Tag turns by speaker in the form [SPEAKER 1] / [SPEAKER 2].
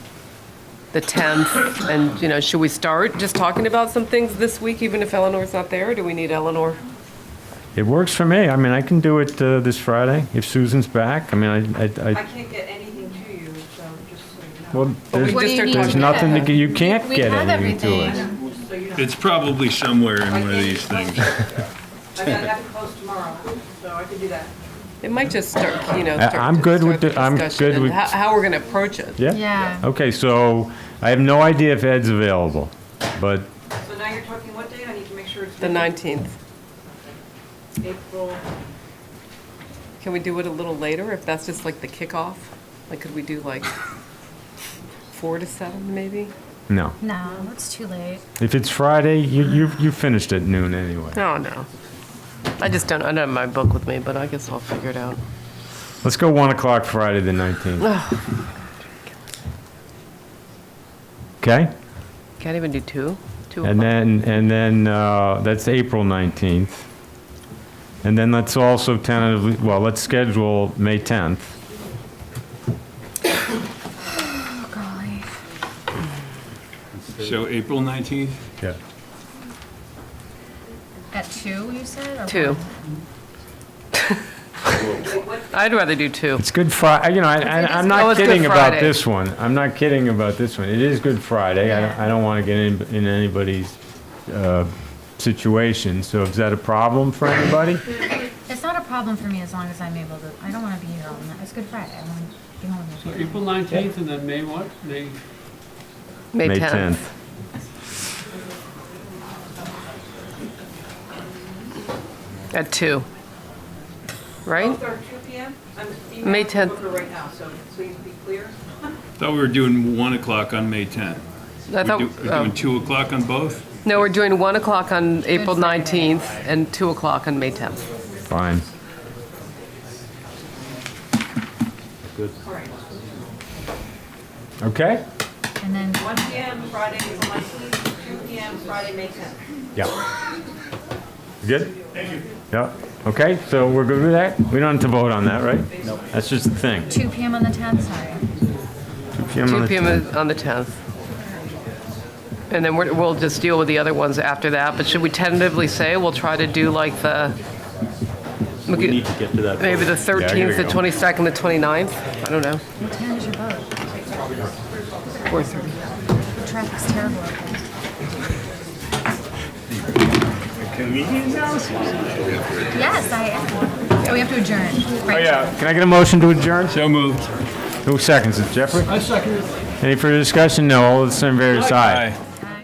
[SPEAKER 1] the 10th, and, you know, should we start just talking about some things this week, even if Eleanor's not there? or Do we need Eleanor?
[SPEAKER 2] It works for me. I mean, I can do it uh, this Friday if Susan's back. I mean, I, I,
[SPEAKER 3] I
[SPEAKER 2] I
[SPEAKER 3] can't get anything to you, so just so you know.
[SPEAKER 2] well, there's,
[SPEAKER 1] What do you need
[SPEAKER 2] there's
[SPEAKER 1] to
[SPEAKER 2] nothing to get. You can't
[SPEAKER 4] We
[SPEAKER 2] get
[SPEAKER 4] have
[SPEAKER 2] anything to
[SPEAKER 4] everything.
[SPEAKER 2] it.
[SPEAKER 3] Just so you know.
[SPEAKER 5] It's probably somewhere in
[SPEAKER 3] I
[SPEAKER 5] one of
[SPEAKER 3] can't
[SPEAKER 5] these
[SPEAKER 3] get
[SPEAKER 5] things.
[SPEAKER 3] close. I gotta have it closed tomorrow, so I can do that.
[SPEAKER 1] It might just start, you know.
[SPEAKER 2] I-
[SPEAKER 1] start-
[SPEAKER 2] I'm good with
[SPEAKER 1] start
[SPEAKER 2] the- I'm
[SPEAKER 1] discussion
[SPEAKER 2] good
[SPEAKER 1] and
[SPEAKER 2] with-
[SPEAKER 1] How, how we're going to approach it.
[SPEAKER 2] Yeah.
[SPEAKER 4] Yeah.
[SPEAKER 2] Okay, so I have no idea if Ed's available, but
[SPEAKER 3] So now you're talking what day? I need to make sure it's.
[SPEAKER 1] The 19th.
[SPEAKER 3] April,
[SPEAKER 1] Can we do it a little later, if that's just like the kickoff? Like, could we do like 4 to 7, maybe?
[SPEAKER 2] no.
[SPEAKER 4] No, it's too late.
[SPEAKER 2] If it's Friday, you you you finished at noon anyway.
[SPEAKER 1] No, Oh, no. I just don't, I don't have my book with me, but I guess I'll figure it out.
[SPEAKER 2] Let's go one o'clock Friday the nineteenth. Okay,
[SPEAKER 1] Can't even do 2? 2
[SPEAKER 2] and
[SPEAKER 1] o'clock?
[SPEAKER 2] then and then uh, that's April nineteenth, and then let's also tentatively well let's schedule May tenth.
[SPEAKER 4] Oh, golly.
[SPEAKER 5] So April 19th?
[SPEAKER 2] Yeah.
[SPEAKER 4] At two, you said? or
[SPEAKER 1] 2.
[SPEAKER 4] one?
[SPEAKER 1] I'd rather do 2.
[SPEAKER 2] It's Good Friday, you know, I- I- I'm
[SPEAKER 1] Oh,
[SPEAKER 2] not
[SPEAKER 1] it's Good
[SPEAKER 2] kidding about
[SPEAKER 1] Friday.
[SPEAKER 2] this one. I'm not kidding about this one. It is Good Friday. I don't- I don't want to get in in anybody's uh, situation, so is that a problem for anybody?
[SPEAKER 4] It's not a problem for me as long as I'm able to. I don't want to be here all night. It's Good Friday. I want to be home. with
[SPEAKER 6] So
[SPEAKER 4] my
[SPEAKER 6] April
[SPEAKER 4] family.
[SPEAKER 6] 19th and then May what? May,
[SPEAKER 1] May 10th. At 2. Right?
[SPEAKER 3] both are two PM. I'm
[SPEAKER 1] May
[SPEAKER 3] emailing the
[SPEAKER 1] 10th.
[SPEAKER 3] booker right now, so please be clear.
[SPEAKER 5] Thought we were doing 1 o'clock on May 10th.
[SPEAKER 1] I
[SPEAKER 5] We're
[SPEAKER 1] thought,
[SPEAKER 5] do- we're
[SPEAKER 1] oh.
[SPEAKER 5] doing 2 o'clock on both?
[SPEAKER 1] No, we're doing 1 o'clock on April
[SPEAKER 4] Friday.
[SPEAKER 1] 19th and 2 o'clock on May 10th.
[SPEAKER 2] Fine.
[SPEAKER 3] All right.
[SPEAKER 2] Okay?
[SPEAKER 4] And then
[SPEAKER 3] One PM Friday, April 19th, two PM Friday, May 10th.
[SPEAKER 2] Yeah. Good? Thank you. Yeah, okay, so we're good with that? We don't have to vote on that, right? No. That's just the thing.
[SPEAKER 4] 2 p.m. on the 10th, sorry.
[SPEAKER 1] 2 PM is on the 10th. And then we're- we'll just deal with the other ones after that, but should we tentatively say we'll try to do like the,
[SPEAKER 7] We need to get to that.
[SPEAKER 1] maybe the 13th, the
[SPEAKER 2] go.
[SPEAKER 1] 22nd, the 29th? I don't know.
[SPEAKER 4] What time is your boat?
[SPEAKER 1] Or th-
[SPEAKER 4] The traffic's terrible. up there. Yes, I am. Oh, we have to adjourn.
[SPEAKER 2] Oh,
[SPEAKER 4] Right.
[SPEAKER 2] yeah, can I get a motion to adjourn?
[SPEAKER 5] So moved.
[SPEAKER 2] Who seconds it, Jeffrey? I second it. Any further discussion? No, all those in favor, say aye.
[SPEAKER 5] Aye.